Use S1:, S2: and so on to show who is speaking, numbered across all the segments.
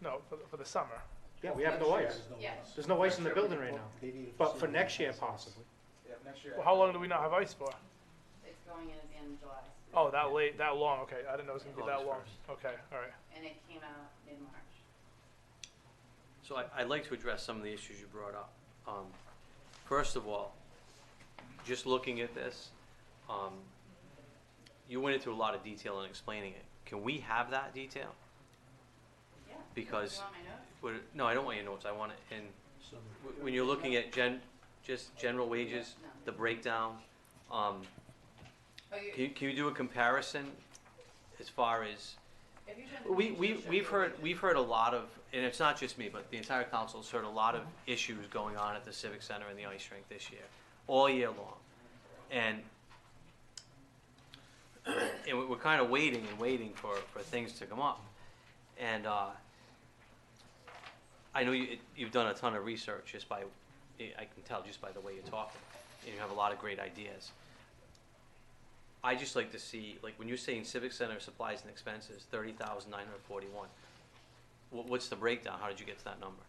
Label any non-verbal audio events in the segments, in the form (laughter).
S1: No, for, the- for the summer.
S2: Yeah, we have no ice.
S3: Yeah.
S2: There's no ice in the building right now, but for next year possibly.
S4: Yeah, next year.
S1: Well, how long do we not have ice for?
S3: It's going in at the end of July,
S1: Oh, that late, that long, okay, I didn't know it was gonna be that long. Okay, all right.
S3: and it came out mid-March.
S5: So I, I'd like to address some of the issues you brought up. Um, first of all, just looking at this, um, you went into a lot of detail in explaining it. Can we have that detail?
S3: Yeah.
S5: Because-
S3: You want my notes?
S5: Would, no, I don't want your notes, I want it in, wh- when you're looking at gen, just general wages,
S3: No.
S5: the breakdown, um,
S3: Oh, you,
S5: can, you- can you do a comparison as far as,
S3: if you turn the
S5: We,
S3: page,
S5: we,
S3: it'll show
S5: we've
S3: you.
S5: heard, we've heard a lot of, and it's not just me, but the entire council's heard a lot of issues going on at the Civic Center and the ice rink this year, all year long. And, (clears throat) and we- we're kind of waiting and waiting for, for things to come up. And, uh, I know you, you've done a ton of research just by, I can tell just by the way you're talking, and you have a lot of great ideas. I just like to see, like, when you're saying civic center supplies and expenses, thirty thousand nine hundred forty-one, what, what's the breakdown? How did you get to that number?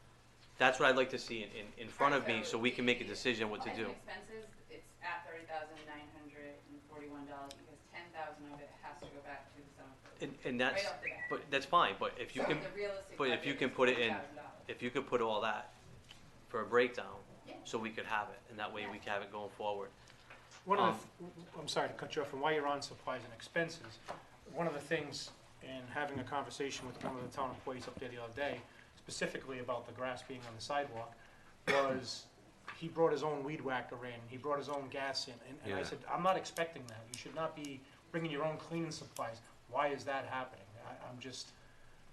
S5: That's what I'd like to see in, in, in front of me, so we can make a decision what to
S3: Supplies
S5: do.
S3: and expenses, it's at thirty thousand nine hundred and forty-one dollars, because ten thousand of it has to go back to the summer. program.
S5: And, and that's,
S3: Right off the bat.
S5: but that's fine, but if you
S3: So
S5: can,
S3: the realistic
S5: but if
S3: budget
S5: you
S3: is
S5: can put it in-
S3: $40,000.
S5: if you could put all that for a breakdown,
S3: Yeah.
S5: so we could have it, and that way we can have it going forward.
S2: One of the, th- I'm sorry to cut you off, and while you're on supplies and expenses, one of the things in having a conversation with one of the town employees up there the other day, specifically about the grass being on the sidewalk, was he brought his own weed whacker in, he brought his own gas in, and, and I
S5: Yeah.
S2: said, I'm not expecting that, you should not be bringing your own cleaning supplies, why is that happening? I, I'm just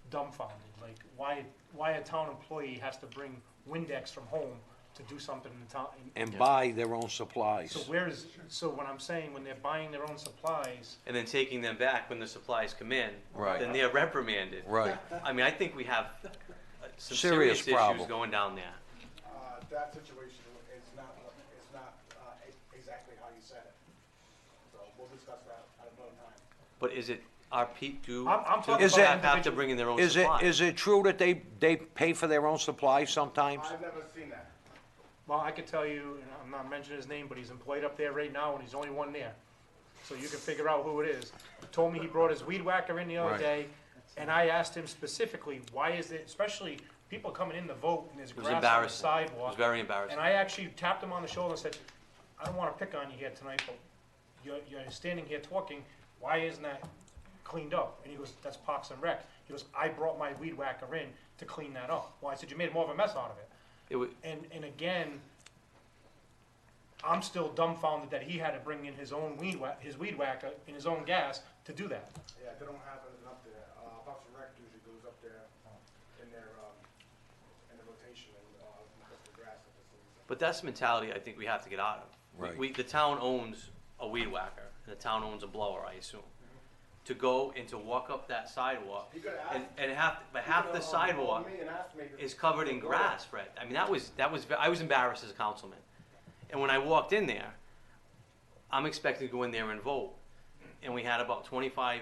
S2: dumbfounded, like, why, why a town employee has to bring Windex from home to do something in town, in-
S6: and buy their own supplies.
S2: so where is, so when I'm saying, when they're buying their own supplies,
S5: and then taking them back when the supplies come in,
S6: Right.
S5: then they're reprimanded.
S6: Right.
S5: I mean, I think we have uh, some
S6: Serious
S5: serious, issues
S6: problem.
S5: going down there.
S4: Uh, that situation is not, is not, uh, e- exactly how you said it. So we'll discuss that at another time.
S5: But is it our peak do?
S2: I'm- I'm
S5: do
S2: talking
S5: people
S6: about
S5: have to
S2: individual-
S5: bring in their own
S6: Is it,
S5: supplies?
S6: is it true that they, they pay for their own supplies sometimes?
S4: I've never seen that.
S2: well, I could tell you, and I'm not mentioning his name, but he's employed up there right now, and he's only one there. So you can figure out who it is. He Told me he brought his weed whacker in the other
S6: Right.
S2: day, and I asked him specifically, why is it, especially people coming in to vote, and there's
S5: was
S2: grass on the
S5: embarrassing.
S2: sidewalk.
S5: It was very embarrassing.
S2: And I actually tapped him on the shoulder and said, I don't wanna pick on you here tonight, but you're, you're standing here talking, why isn't that cleaned up? And he goes, that's Parks and Rec. He goes, I brought my weed whacker in to clean that up. Well, I said, you made more of a mess out of it.
S5: It wa-
S2: And, and again, I'm still dumbfounded that he had to bring in his own weed wha- his weed whacker and his own gas to do that.
S4: Yeah, they don't have it up there. Uh, Parks and Rec usually goes up there in their, um, in their rotation and, uh, cuts the grass at the season.
S5: but that's the mentality I think we have to get out of.
S6: Right.
S5: We, we, the town owns a weed whacker, and the town owns a blower, I assume. To go and to walk up that sidewalk,
S4: You could
S5: and,
S4: ask.
S5: and half, but half
S4: um,
S5: the sidewalk is covered in grass, Fred. I mean, that was, that was, I was embarrassed as a councilman. And when I walked in there, I'm expected to go in there and vote. And we had about twenty-five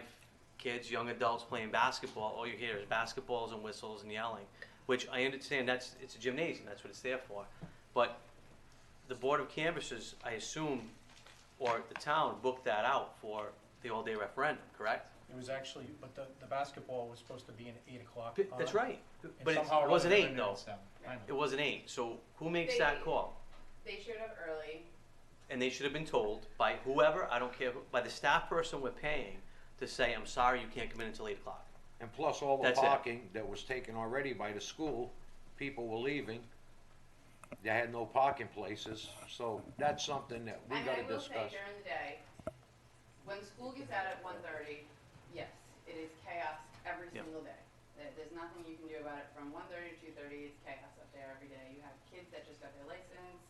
S5: kids, young adults playing basketball. All you hear is basketballs and whistles and yelling, which I understand that's, it's a gymnasium, that's what it's there for. But the Board of Canvassers, I assume, or the town booked that out for the all-day referendum, correct?
S2: It was actually, but the, the basketball was supposed to be in eight o'clock.
S5: That's
S2: uh,
S5: right.
S2: and
S5: But it
S2: somehow or other
S5: wasn't
S2: they
S5: eight,
S2: ended at
S5: though.
S2: seven. I know.
S5: It wasn't eight. So who makes
S3: They-
S5: that call?
S3: They showed up early,
S5: and they should have been told by whoever, I don't care, who- by the staff person we're paying, to say, I'm sorry, you can't come in until eight o'clock.
S6: And plus all the
S5: That's it.
S6: parking that was taken already by the school, people were leaving. They had no parking places, so that's something that we
S3: I mean, I
S6: gotta
S3: will say
S6: discuss.
S3: during the day, when school gets out at one thirty, yes, it is chaos every
S5: Yeah.
S3: single day. There, there's nothing you can do about it from one thirty to two thirty, it's chaos up there every day. You have kids that just got their license,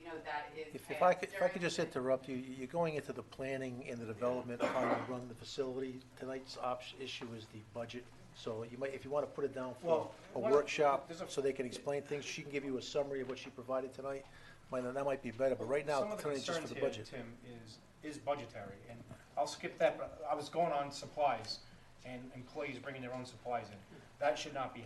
S3: you know, that is
S7: If, if I
S3: chaos
S7: could, if I
S3: during
S7: could just
S3: the day.
S7: interrupt you, you're going into the planning and the development of how you run the facility. Tonight's option, issue is the budget, so you might, if you wanna put it down for
S2: Well,
S7: a
S2: why don't-
S7: workshop,
S2: there's a-
S7: so they can explain things, she can give you a summary of what she provided tonight. Might, that might be better, but right now,
S2: Some of the
S7: tonight's just for
S2: concerns
S7: the
S2: here,
S7: budget.
S2: Tim, is, is budgetary, and I'll skip that, but I was going on supplies and employees bringing their own supplies in. That should not be